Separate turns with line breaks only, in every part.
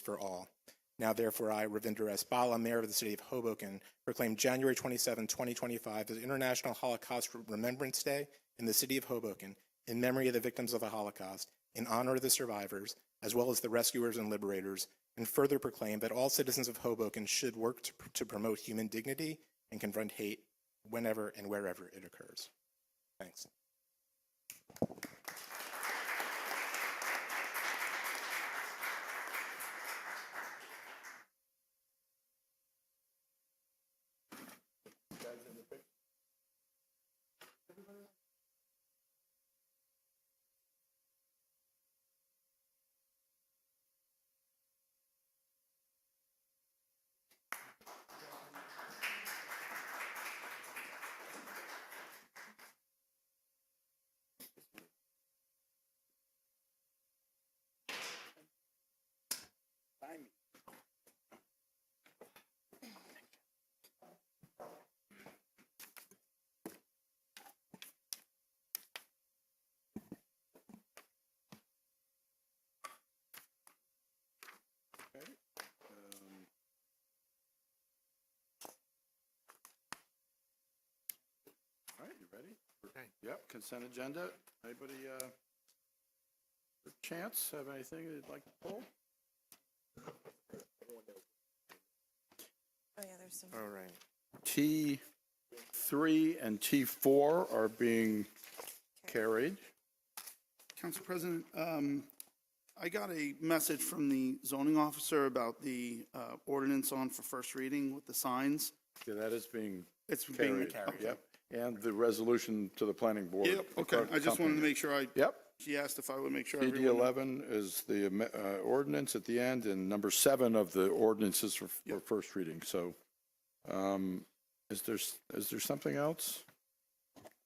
for all. Now therefore, I, Ravinder S. Bala, Mayor of the City of Hoboken, proclaim January 27, 2025 as International Holocaust Remembrance Day in the City of Hoboken in memory of the victims of the Holocaust, in honor of the survivors, as well as the rescuers and liberators, and further proclaim that all citizens of Hoboken should work to, to promote human dignity and confront hate whenever and wherever it occurs. Thanks.
All right, you ready? Yep, consent agenda. Anybody, uh, for chance, have anything they'd like to pull?
Oh, yeah, there's some.
All right.
T three and T four are being carried.
Council President, um, I got a message from the zoning officer about the, uh, ordinance on for first reading with the signs.
Yeah, that is being
It's being.
carried. Yep, and the resolution to the planning board.
Yep, okay, I just wanted to make sure I,
Yep,
she asked if I would make sure
PD
everyone.
eleven is the am- uh, ordinance at the end, and number seven of the ordinances for, for first reading, so. um, Is there, s- is there something else?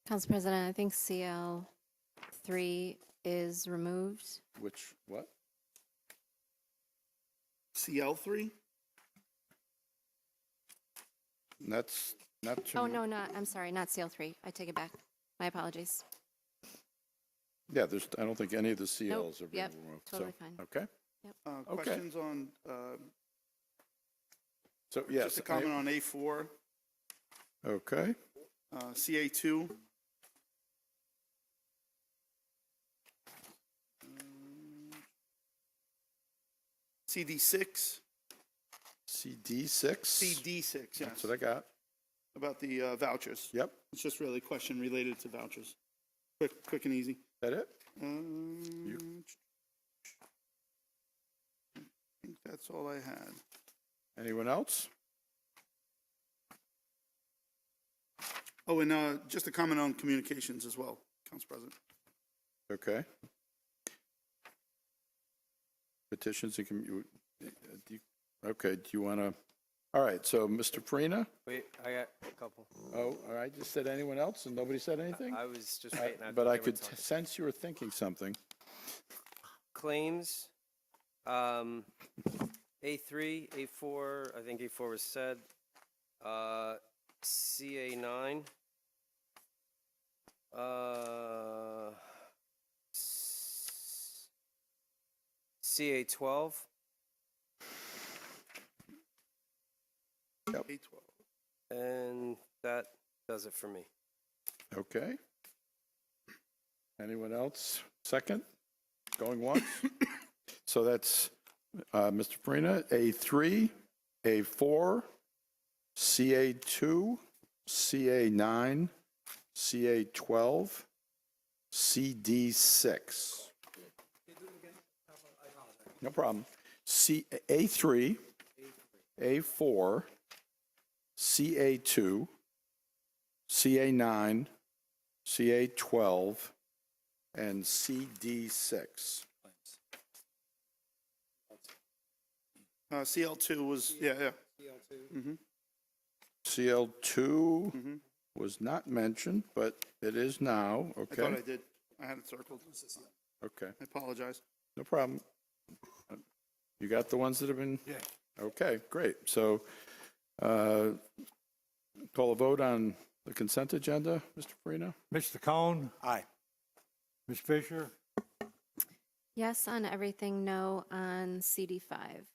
Council President, I think CL three is removed.
Which, what?
CL three?
That's not to.
Oh, no, not, I'm sorry, not CL three. I take it back. My apologies.
Yeah, there's, I don't think any of the
Nope,
CLs are being
yep,
removed, so,
totally fine.
okay?
Uh,
Okay.
questions on, uh,
So, yes.
just a
I-
comment on A four,
Okay,
uh, CA two? CD six,
CD six.
CD six, yes.
That's what I got,
about the uh, vouchers.
yep,
It's just really a question related to vouchers. Quick, quick and easy.
that it?
Um, I think that's all I had.
Anyone else?
Oh, and uh, just a comment on communications as well, Council President.
Okay. Petitions and commu, uh, do you- okay, do you want to, all right, so Mr. Farina?
Wait, I got a couple.
Oh, all right, just said anyone else and nobody said anything?
I was just
I-
waiting. thought
But I
they were
could
talking.
sense you were thinking something.
Claims, um, A3, A4, I think A4 was said, uh, CA9, uh, s- CA12,
Eight twelve.
and that does it for me.
Okay. Anyone else? Second? Going once? So that's uh, Mr. Farina, A3, A4, CA2, CA9, CA12, CD6. No problem. C, A3, A4, CA2, CA9, CA 12, and CD 6.
Uh, CL two was, yeah, yeah.
CL 2
Mhm.
was not mentioned, but it is now,
I thought I
okay?
did. I had it circled.
Okay,
I apologize.
no problem. You got the ones that have been? Yeah. Okay, great. So uh, call a vote on the consent agenda, Mr. Farina?
Mr. Cohn,
Aye.
Ms. Fisher,
Yes on everything, no on CD five.